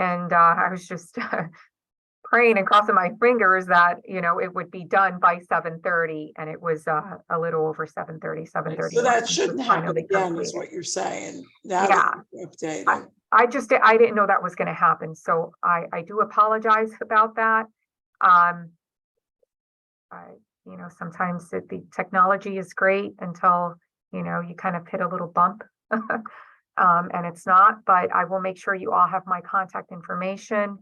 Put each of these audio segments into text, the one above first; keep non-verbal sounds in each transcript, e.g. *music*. And uh, I was just uh, praying and crossing my fingers that, you know, it would be done by seven thirty and it was uh, a little over seven thirty, seven thirty. So that shouldn't happen again, is what you're saying. Now that it's updated. I just, I didn't know that was gonna happen, so I, I do apologize about that. Um. I, you know, sometimes the, the technology is great until, you know, you kind of hit a little bump. *laughs* Um, and it's not, but I will make sure you all have my contact information.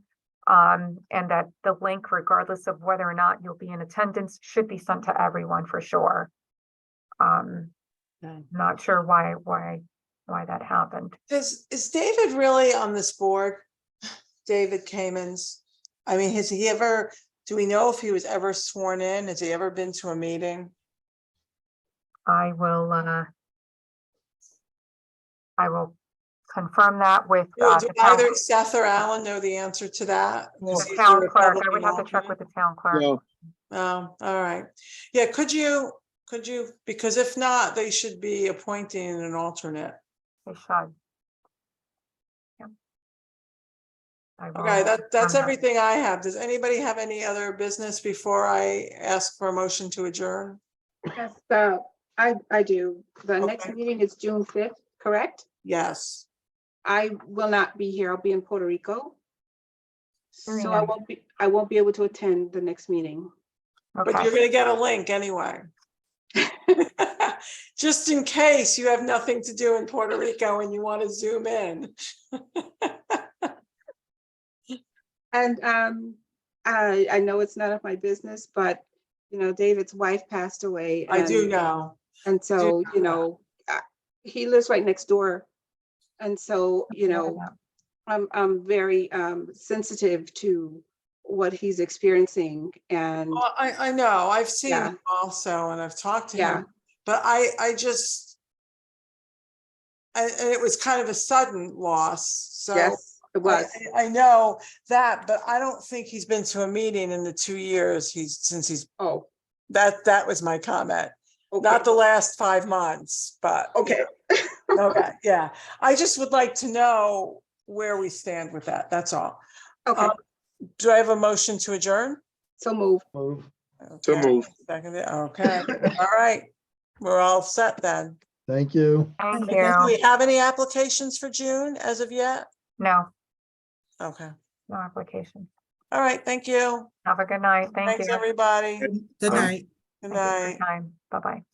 Um, and that the link, regardless of whether or not you'll be in attendance, should be sent to everyone for sure. Um, Okay. not sure why, why, why that happened. Is, is David really on this board? David Kamens? I mean, has he ever, do we know if he was ever sworn in? Has he ever been to a meeting? I will, uh, I will confirm that with, Do uh, do the town, either Seth or Alan know the answer to that? Is the he town a clerk. I Republican would have to check with alternate? the town clerk. No, Oh, all right. Yeah, could you, could you, because if not, they should be appointing an alternate. They should. Yep. I will Um, Okay, that, that's confirm everything I have. Does anybody have any other business before I ask for a motion to adjourn? Yes, the, I, I do. The next Okay. meeting is June fifth, correct? Yes. I will not be here. I'll be in Puerto Rico. So I Alright. won't be, I won't be able to attend the next meeting. But Okay, you're gonna get a link anyway. *laughs* Just in case you have nothing to do in Puerto Rico and you want to zoom in. And um, I, I know it's none of my business, but, you know, David's wife passed away. I do and- know. And so, know you that. know, I- he lives right next door. And so, you know, I'm, I'm very um sensitive to what he's experiencing and. Well, I, I know. I've seen Yeah. him also and I've talked to Yeah. him, but I, I just and, and it was kind of a sudden loss, so. Yes, it I- was. I I know that, but I don't think he's been to a meeting in the two years he's, since he's, Oh. that, that was my comment. Not the last five months, but. Okay. Okay, yeah. I just would like to know where we stand with that. That's all. Okay, um, Do I have a motion to adjourn? so move. Move. so Okay, moved. Seconded, okay. All right. We're all set then. Thank you. thank Do you. we have any applications for June as of yet? No, Okay. no application. All right, thank you. Have a good night. Thank you. Thanks, everybody. Good Um, night. Thank Good you for your night. Time. Bye-bye.